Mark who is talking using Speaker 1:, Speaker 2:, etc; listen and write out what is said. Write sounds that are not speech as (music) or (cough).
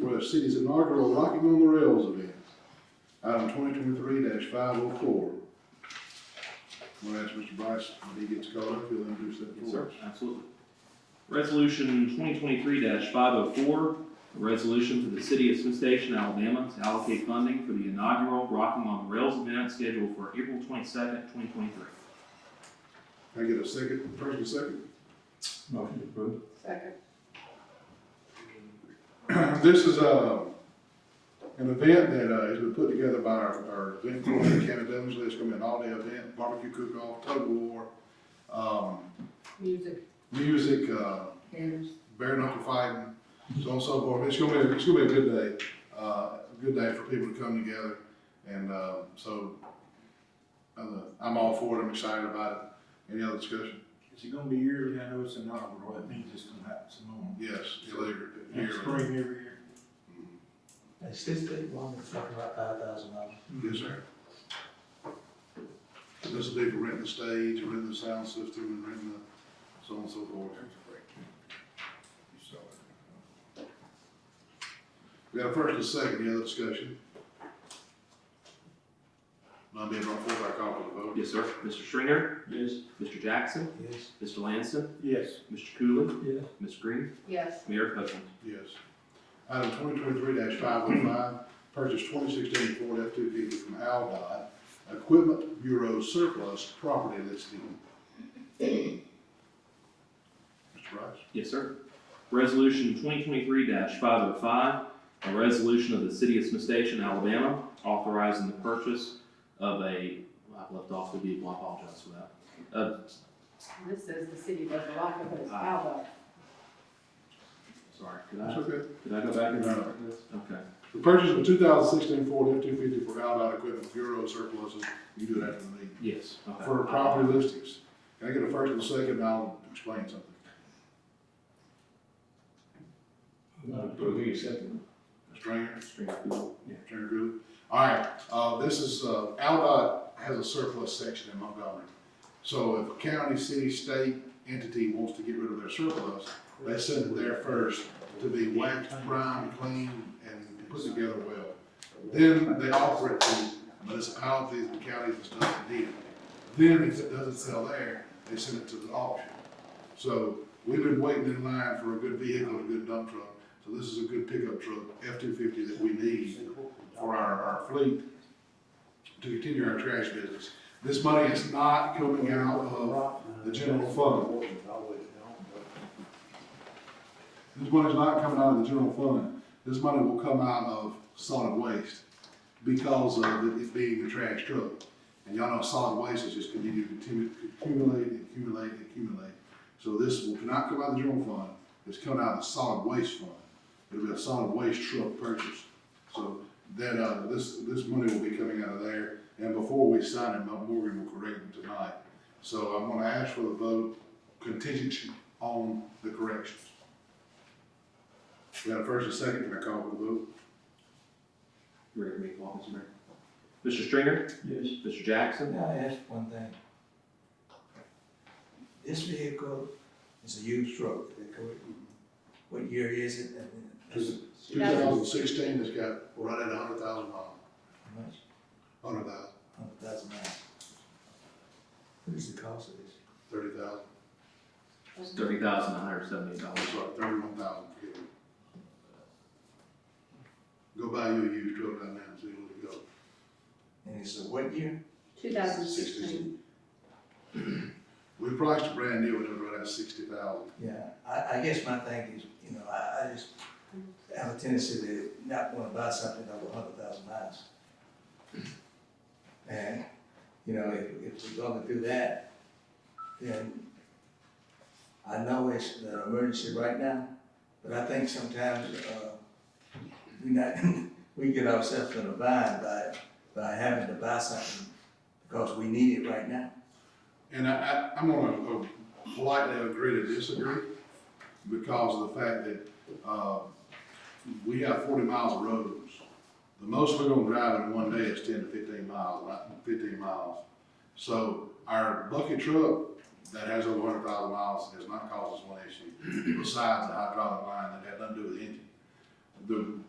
Speaker 1: the city's inaugural Rocking on the Rails event. Item twenty twenty-three five oh four. I'm gonna ask Mr. Bryce, when he gets called up, he'll introduce that for us.
Speaker 2: Absolutely. Resolution twenty twenty-three five oh four, a resolution for the city of Smith Station, Alabama, to allocate funding for the inaugural Rocking on the Rails event scheduled for April twenty-second, twenty twenty-three.
Speaker 1: Can I get a second, first and second?
Speaker 3: Motion approved.
Speaker 4: Second.
Speaker 1: (clears throat) This is, uh, an event that, uh, has been put together by our, our event coordinator, Kevin Dunsley. It's gonna be an all-day event, barbecue cook-off, tug of war, um,
Speaker 4: Music.
Speaker 1: music, uh,
Speaker 4: Here's.
Speaker 1: bare
Speaker 4: bare
Speaker 1: knuckle fighting, so on and so forth. It's gonna be, it's gonna be a good day, uh, a good day for people to come together. And, uh, so, uh, I'm all for it, I'm excited about it. Any other discussion?
Speaker 5: Is it gonna be yearly? I know it's inaugural, that means it's gonna happen some more.
Speaker 1: Yes, later,
Speaker 5: And
Speaker 1: yearly.
Speaker 5: spring every year.
Speaker 6: It's just that one, it's talking about five thousand dollars.
Speaker 1: Yes, sir. This will be for renting the stage, renting the sound system, and renting the, so on and so forth. We got a first and a second, any other discussion? None being brought forth, I call for the vote.
Speaker 2: Yes, sir. Mr. Stringer?
Speaker 5: Yes.
Speaker 2: Mr. Jackson?
Speaker 6: Yes.
Speaker 2: Mr. Lanston?
Speaker 5: Yes.
Speaker 2: Mr. Cooley?
Speaker 6: Yes.
Speaker 2: Ms. Green?
Speaker 4: Yes.
Speaker 2: Mayor Copeland?
Speaker 1: Yes. Item twenty twenty-three five oh five, purchase twenty sixteen Ford F two fifty from Aldott, Equipment Bureau surplus property listing. Mr. Rice?
Speaker 2: Yes, sir. Resolution twenty twenty-three five oh five, a resolution of the city of Smith Station, Alabama, authorizing the purchase of a, I've left off the vehicle, I apologize for that. Uh,
Speaker 4: This says the city does a lot of those, how
Speaker 2: Sorry, could I,
Speaker 1: That's okay.
Speaker 2: could I go back and?
Speaker 1: No.
Speaker 2: Okay.
Speaker 1: The purchase of two thousand sixteen Ford F two fifty for Aldott Equipment Bureau surpluses, you do it after the meeting,
Speaker 2: Yes. okay.
Speaker 1: for property listings. Can I get a first and a second, and I'll explain something.
Speaker 3: We accept it.
Speaker 1: Mr. Stringer?
Speaker 2: Stringer, Cooley.
Speaker 1: Turner Group. All right, uh, this is, uh, Aldott has a surplus section in Montgomery. So if a county, city, state entity wants to get rid of their surplus, they send it there first to be waxed, primed, cleaned, and put together well. Then they offer it to municipalities and counties and stuff that need it. Then if it doesn't sell there, they send it to the auction. So we've been waiting in line for a good vehicle, a good dump truck. So this is a good pickup truck, F two fifty that we need for our, our fleet to continue our trash business. This money is not coming out of, the general fund. this money is not coming out of the general fund. This money will come out of solid waste because of it it being a trash truck. And y'all know solid waste is just continue to continue- accumulate, and accumulate, and accumulate. So this will not come out of the general fund, it's coming out of the solid waste fund. It'll be a solid waste truck purchase. So that, uh, this, this money will be coming out of there, and before we sign it, Mount Morgan will correct it tonight. So I'm gonna ask for the vote contingency on the corrections. We got a first and second, can I call for the vote?
Speaker 2: You ready for me to call, Mr. Mayor? Mr. Stringer?
Speaker 3: Yes.
Speaker 2: Mr. Jackson?
Speaker 6: Can I ask one thing? This vehicle is a used truck, is that correct? What year is it? And then-
Speaker 1: Two thousand sixteen has got right at a hundred thousand miles,
Speaker 6: How much?
Speaker 1: hundred thousand,
Speaker 6: Hundred thousand miles. What is the cost of this?
Speaker 1: thirty thousand,
Speaker 2: It's thirty thousand nine hundred seventy-eight dollars.
Speaker 1: I'm sorry, thirty-one thousand, forgive me. Go buy you a used truck right now and see where it goes.
Speaker 6: And it's a what year?
Speaker 4: Two thousand sixteen.
Speaker 1: We priced a brand new, it was right at sixty thousand.
Speaker 6: Yeah, I, I guess my thing is, you know, I, I just have a tendency to not wanna buy something over hundred thousand miles. And, you know, if, if we're gonna do that, then I know it's an emergency right now, but I think sometimes, uh, we not, (laughs) we get ourselves in a bind by, by having to buy something because we need it right now.
Speaker 1: And I, I, I'm gonna uh, politely agree to disagree because of the fact that, uh, we have forty miles of roads. The most we're gonna drive in one day is ten to fifteen miles, right, fifteen miles. So our bucket truck that has over hundred thousand miles has not caused us one issue besides the hydraulic line that had nothing to do with the engine. The